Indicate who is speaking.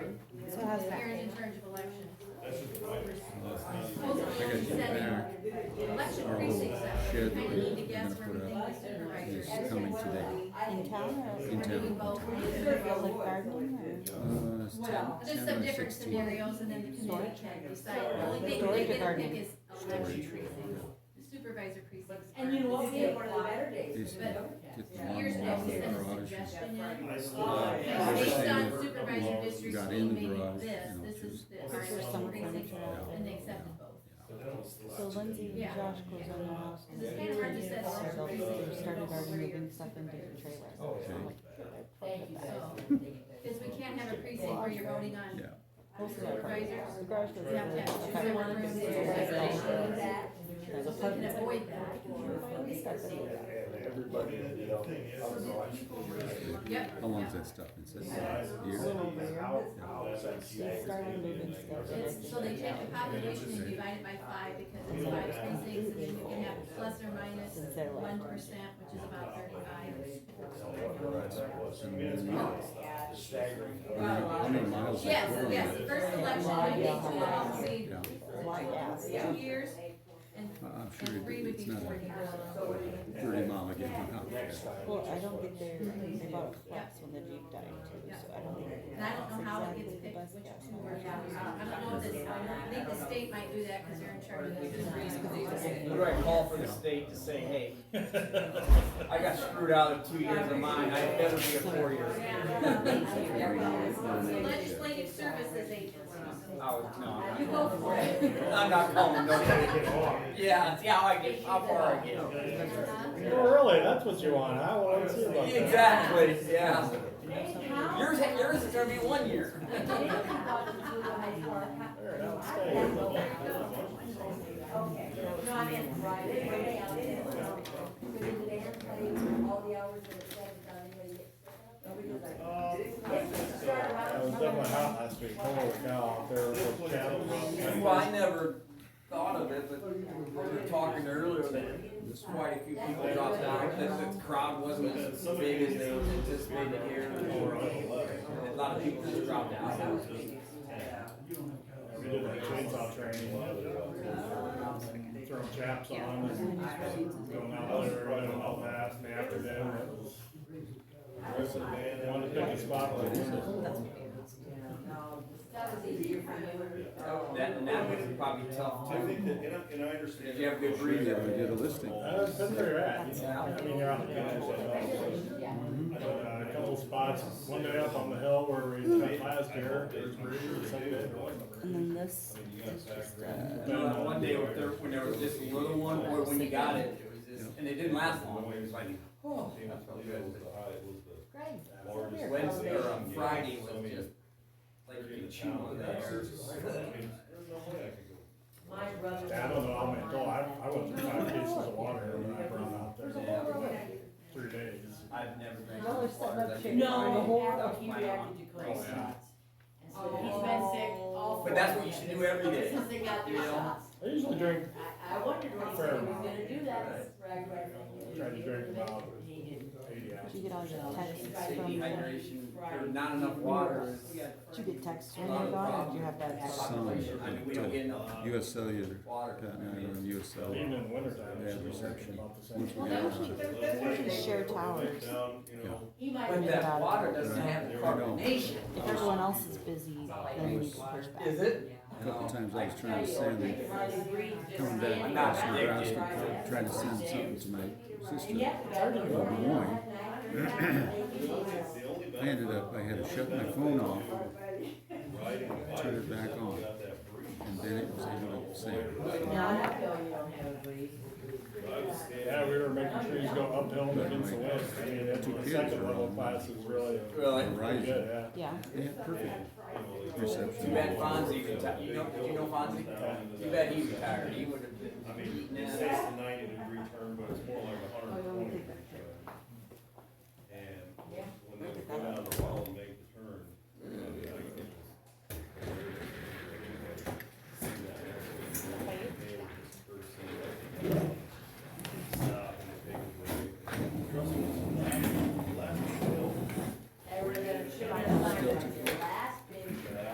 Speaker 1: election precincts that way.
Speaker 2: Shared
Speaker 1: You kinda
Speaker 2: that
Speaker 1: need to
Speaker 2: we're
Speaker 1: guess
Speaker 2: gonna
Speaker 1: where
Speaker 2: put
Speaker 1: everything
Speaker 2: out
Speaker 1: is
Speaker 2: is
Speaker 1: supervisors.
Speaker 2: coming today.
Speaker 3: In town or?
Speaker 2: In
Speaker 1: We're doing
Speaker 2: town.
Speaker 1: both.
Speaker 3: Like garden
Speaker 2: Uh,
Speaker 3: or?
Speaker 2: it's ten,
Speaker 1: But
Speaker 2: ten
Speaker 1: There's
Speaker 2: or
Speaker 1: some different
Speaker 2: sixteen.
Speaker 1: scenarios and then the committee can decide. The only thing
Speaker 3: Storage
Speaker 1: they get
Speaker 3: or
Speaker 1: to
Speaker 3: garden?
Speaker 1: pick is election precincts. The supervisor precincts.
Speaker 4: And you know what, we
Speaker 1: aren't.
Speaker 4: had one of the better days.
Speaker 2: Is
Speaker 4: than the
Speaker 1: but
Speaker 4: overcast.
Speaker 2: Get the
Speaker 4: Yeah.
Speaker 1: Years
Speaker 2: lawnmower
Speaker 1: ago,
Speaker 2: out
Speaker 1: we
Speaker 2: of
Speaker 1: sent
Speaker 2: our
Speaker 1: a
Speaker 2: garage.
Speaker 1: suggestion in.
Speaker 4: Yeah.
Speaker 1: Based on
Speaker 2: Everything
Speaker 1: supervisor districts,
Speaker 2: got
Speaker 1: we
Speaker 2: in the
Speaker 1: made
Speaker 2: garage,
Speaker 1: this,
Speaker 2: you know,
Speaker 1: this is the
Speaker 3: Is there
Speaker 1: election
Speaker 3: some
Speaker 1: precinct,
Speaker 3: furniture out
Speaker 1: and they
Speaker 3: there?
Speaker 1: accepted both.
Speaker 3: So Lindsay and
Speaker 1: Yeah.
Speaker 3: Josh goes on the house. and
Speaker 1: Because it's kind of hard to set up.
Speaker 3: So they Started already moving stuff into the trailers.
Speaker 5: Oh,
Speaker 3: So I'm like,
Speaker 4: Thank you guys.
Speaker 1: So,
Speaker 4: for taking that.
Speaker 1: Because we can't have a precinct where you're voting on
Speaker 2: Yeah,
Speaker 3: Most of our properties, the garage goes in
Speaker 1: Yeah, yeah.
Speaker 3: there.
Speaker 1: She's
Speaker 3: Okay.
Speaker 1: the one who
Speaker 3: It's a
Speaker 1: did
Speaker 3: little
Speaker 1: it.
Speaker 3: bit
Speaker 4: Congratulations
Speaker 3: long.
Speaker 4: on that.
Speaker 1: So we can avoid that.
Speaker 3: Why do we start with that?
Speaker 5: Everybody, you know,
Speaker 1: So that people were- Yep.
Speaker 2: how long's
Speaker 1: yeah.
Speaker 2: that stuff been sitting there? A Year?
Speaker 3: They started moving stuff.
Speaker 1: It's, so they take the population and divide it by five because it's five precincts, and then you can have plus or minus one percent, which is about thirty-five.
Speaker 5: Staggering.
Speaker 2: How many miles?
Speaker 1: Yes,
Speaker 2: that road
Speaker 1: yes,
Speaker 2: is?
Speaker 1: the first election, I think two would
Speaker 2: Yeah,
Speaker 1: only two years, and,
Speaker 2: I- Uh, I'm sure
Speaker 1: and three
Speaker 2: it-
Speaker 1: would
Speaker 2: it's
Speaker 1: be
Speaker 2: not
Speaker 1: four
Speaker 2: a
Speaker 1: years.
Speaker 2: thirty mile again. huh?
Speaker 3: Well, I don't think they're, they bought a flex when the Jeep died too, so I don't think.
Speaker 1: And I don't know how it gets
Speaker 3: that's
Speaker 1: picked,
Speaker 3: exactly the best
Speaker 1: which
Speaker 3: guess.
Speaker 1: two are out, I don't know if this, I think the state might do that, cause they're in charge of the precinct.
Speaker 6: What do I call for the state to say, hey, I got screwed out of two years of mine, I better be a four year.
Speaker 1: So legislative services agency.
Speaker 6: Oh, no,
Speaker 1: You
Speaker 6: I'm
Speaker 1: go
Speaker 6: not-
Speaker 1: for it.
Speaker 6: I'm not calling nobody. Yeah, see how I get, how far I get.
Speaker 5: Really, that's what you want, huh? Well, let's see about that.
Speaker 6: Exactly, yeah.
Speaker 4: How-
Speaker 6: Yours, yours is gonna be one year.
Speaker 4: They thought it was a nice car.
Speaker 5: There, now it's staying.
Speaker 4: Okay. No, I mean, right, they were way out there. But in the band, playing all the hours that it's set, without anybody gets sick of it. Nobody's like, "Yes, we start
Speaker 5: I
Speaker 4: around
Speaker 5: was at my house last week, holy cow, there were cattle.
Speaker 6: Well, I never thought of it, but we were talking earlier that quite a few people dropped out, that the crowd wasn't as big as they anticipated here. or A lot of people just dropped out.
Speaker 5: We did like chainsaw training. Throwing chaps on and going out there, running all fast, and after dinner. it was- Wanted to pick a spot like this.
Speaker 4: That was easier for you.
Speaker 6: That, and that was probably tough
Speaker 7: I think
Speaker 6: too.
Speaker 7: that, and I, and I understand.
Speaker 6: Did you have good
Speaker 2: We
Speaker 6: breathing?
Speaker 2: never did a listing.
Speaker 5: I don't- That's where you're at, you know? I mean, you're on the couch.
Speaker 2: Mm-hmm.
Speaker 5: but, uh, A couple spots, one day up on the hill where we spent last year, there's breeders, some
Speaker 3: And then this,
Speaker 6: Uh, One day when there, when there was just a little one, boy, when you got it, it was just, and it didn't last long, it was like, oh, that felt good. Wednesday or on Friday was just, like, you could chew on that.
Speaker 4: My brother.
Speaker 5: Yeah, I don't know, I mean, oh, I, I went through five cases of water when I brought out there, three days.
Speaker 6: I've never been.
Speaker 3: Well, there's something about chicken.
Speaker 6: That was
Speaker 4: No,
Speaker 6: my-
Speaker 4: he reacted to
Speaker 6: Oh,
Speaker 4: cold
Speaker 6: yeah.
Speaker 4: shots. And so
Speaker 1: Oh.
Speaker 4: he's been sick all.
Speaker 6: But that's what you should do every day.
Speaker 4: Since they got the
Speaker 6: You know?
Speaker 4: shots.
Speaker 5: I usually drink,
Speaker 4: I, I wondered when he said he was gonna do that.
Speaker 5: Tried to drink him out.
Speaker 4: He didn't.
Speaker 5: eighty hours.
Speaker 3: did you get all your texts
Speaker 6: It's the
Speaker 3: from, did
Speaker 6: dehydration, or not enough water.
Speaker 3: you get texts when they're gone or did you have that?
Speaker 2: Some.
Speaker 6: I mean, we don't get enough
Speaker 2: US Cellular,
Speaker 6: water.
Speaker 2: Pat and I were on US
Speaker 5: Even
Speaker 2: Cellular.
Speaker 5: in wintertime.
Speaker 2: Yeah,
Speaker 5: it's
Speaker 2: reception.
Speaker 5: usually about the same.
Speaker 2: Once we
Speaker 3: Well,
Speaker 2: got
Speaker 3: those
Speaker 2: on it,
Speaker 3: Usually share towers.
Speaker 7: Down, you know,
Speaker 4: He might have
Speaker 6: But
Speaker 4: been.
Speaker 6: that water doesn't have the carbonation.
Speaker 3: If everyone else is busy, then we can push back.
Speaker 6: Is it?
Speaker 2: a couple times I was trying to send, coming
Speaker 6: I'm
Speaker 2: back,
Speaker 6: not
Speaker 2: across the grass,
Speaker 6: addicted.
Speaker 2: trying to send something to my sister.
Speaker 4: Good
Speaker 2: morning.
Speaker 7: the only, the only
Speaker 2: I ended up, I had to shut my phone off,
Speaker 7: riding a bike
Speaker 2: turn it
Speaker 7: is
Speaker 2: back
Speaker 7: that you
Speaker 2: on.
Speaker 7: got that breeze.
Speaker 2: and then it was able to save.
Speaker 4: No, I feel you don't have a breeze.
Speaker 7: I was standing
Speaker 5: Yeah, we were making trees go uphill and against the wind, I mean, that's
Speaker 2: Two
Speaker 5: the
Speaker 2: kids
Speaker 5: second
Speaker 2: were
Speaker 5: level
Speaker 2: on.
Speaker 5: class is really,
Speaker 6: Really?
Speaker 5: pretty
Speaker 2: Verizon,
Speaker 5: good,
Speaker 3: Yeah,
Speaker 2: they had perfect
Speaker 6: Too
Speaker 2: reception.
Speaker 6: bad Fonzie retired. You know, you know Fonzie? Too bad he retired. He would have
Speaker 7: I
Speaker 6: been.
Speaker 7: mean, it's six to ninety degree turn, but it's more like a